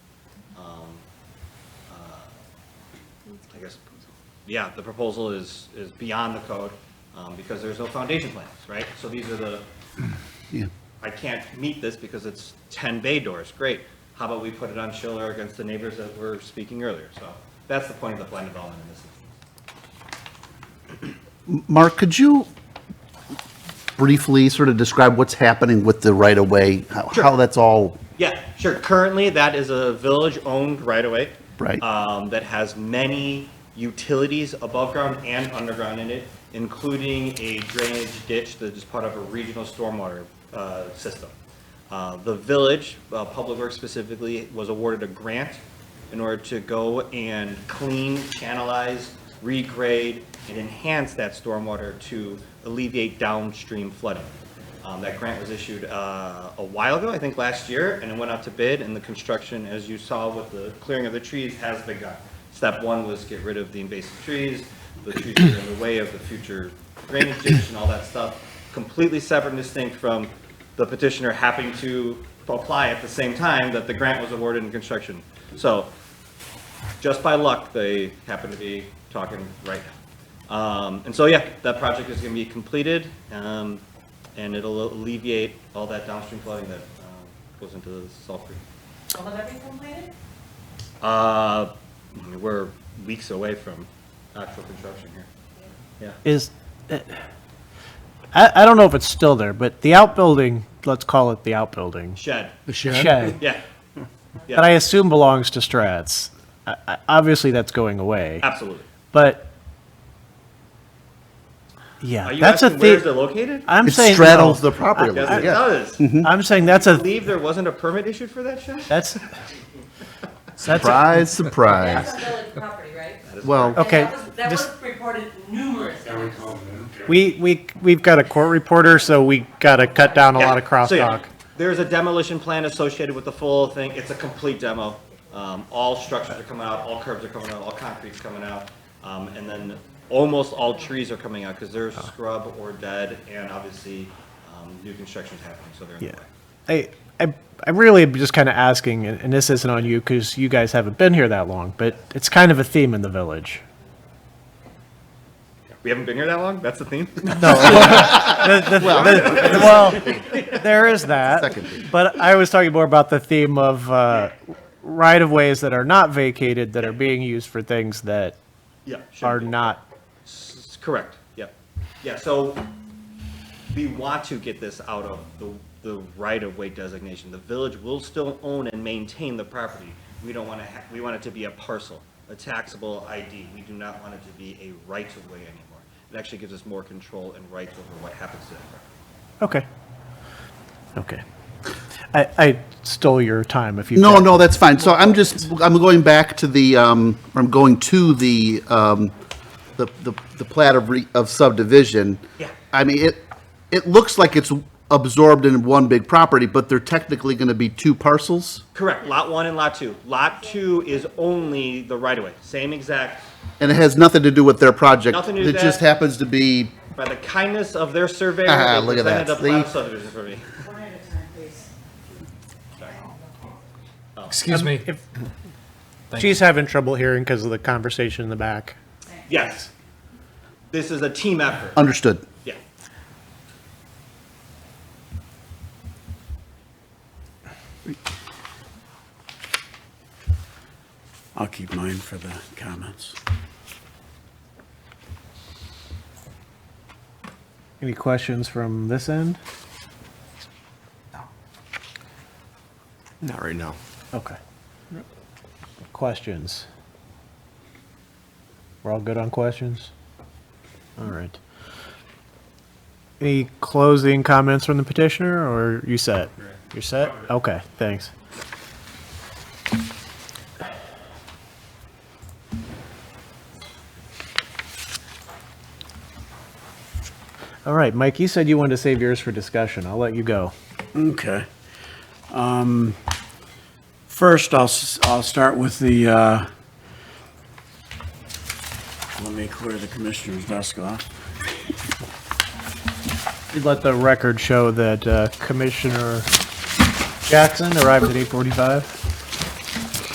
I guess, yeah, the proposal is, is beyond the code, um, because there's no foundation plans, right? So these are the, Yeah. I can't meet this because it's ten bay doors, great. How about we put it on Schiller against the neighbors that were speaking earlier? So that's the point of the plan development in this instance. Mark, could you briefly sort of describe what's happening with the right-of-way? how- How that's all, Yeah, sure. Currently, that is a village-owned right-of-way. Right. Um, that has many utilities above ground and underground in it, including a drainage ditch that is part of a regional stormwater, uh, system. Uh, the village, uh, Public Works specifically, was awarded a grant in order to go and clean, channelize, regrade, and enhance that stormwater to alleviate downstream flooding. Um, That grant was issued uh, a while ago, I think last year, and it went out to bid, and the construction, as you saw with the clearing of the trees, has begun. Step one was get rid of the invasive trees, the trees that are in the way of the future drainage ditch and all that stuff, completely separate and distinct from the petitioner happening to apply at the same time that the grant was awarded in construction. So just by luck, they happen to be talking right now. Um, and so, yeah, that project is gonna be completed, um, and it'll alleviate all that downstream flooding that, um, goes into the Salt Creek. Will it ever be completed? Uh, I mean, we're weeks away from actual construction here. Yeah. is, eh, I, I don't know if it's still there, but the outbuilding, let's call it the outbuilding, Shed, shed, yeah, that I assume belongs to Strats. I- I- Obviously, that's going away, absolutely. but, Are yeah, you that's a asking where is it thing. located? I'm it saying, straddles no. the mm-hmm. property Yes, line, it yeah. does. I I'm saying that's a, believe there wasn't a permit issued for that shed? that's, that's, a- Surprise, surprise. That's a village property, right? Well, And Okay, that was- That this- was reported numerous times. we, we, we've got a court reporter, so we gotta cut down a lot of Yeah, so yeah, crosstalk. There's a demolition plan associated with the full thing. It's a complete demo. Um, all structures are coming out, all curbs are coming out, all concrete's coming out. Um, and then almost all trees are coming out because Oh. they're scrub or dead and obviously, um, new construction's happening, so they're in the Yeah. way. I, I, I really am just kind of asking, and and this isn't on you because you guys haven't been here that long, but it's kind of a theme in the village. We haven't been here that long? That's the theme? The- the- the- Well, there is that, second thing. but I was talking more about the theme of, uh, right of ways that are not vacated, that are being used for things that Yeah. should are be. not, S- Correct, yep. Yeah, so we want to get this out of the, the right-of-way designation. The village will still own and maintain the property. We don't want to, we want it to be a parcel, a taxable ID. We do not want it to be a right-of-way anymore. It actually gives us more control and rights over what happens to that property. okay. Okay. I, I stole your time if you. No, care. no, that's fine. So I'm just, I'm going back to the, um, I'm going to the, um, the, the the plat of re, of subdivision. Yeah. I mean, it, it looks like it's absorbed in one big property, but they're technically going to be two parcels? Correct, Lot 1 and Lot 2. Lot 2 is only the right-of-way, same exact And it has nothing to do with their project. Nothing to do with It just that. happens to be, By the kindness of their surveyor, Ah, they look at presented that. a plat of See? subdivision for me. One at a time, please. Excuse me. If- She's having trouble hearing because of the conversation in the back. Yes. This is a team effort, understood. yeah. I'll keep mine for the comments. Any questions from this end? Not right now. Okay. Questions? We're all good on questions? All right. Any closing comments from the petitioner, or you set? You're set? Okay, thanks. All right, Mike, you said you wanted to save yours for discussion. I'll let you go. Okay. Um, First, I'll, s- I'll start with the, uh, let me clear the commissioner's desk off. Let the record show that uh, Commissioner Jackson arrived at 8:45.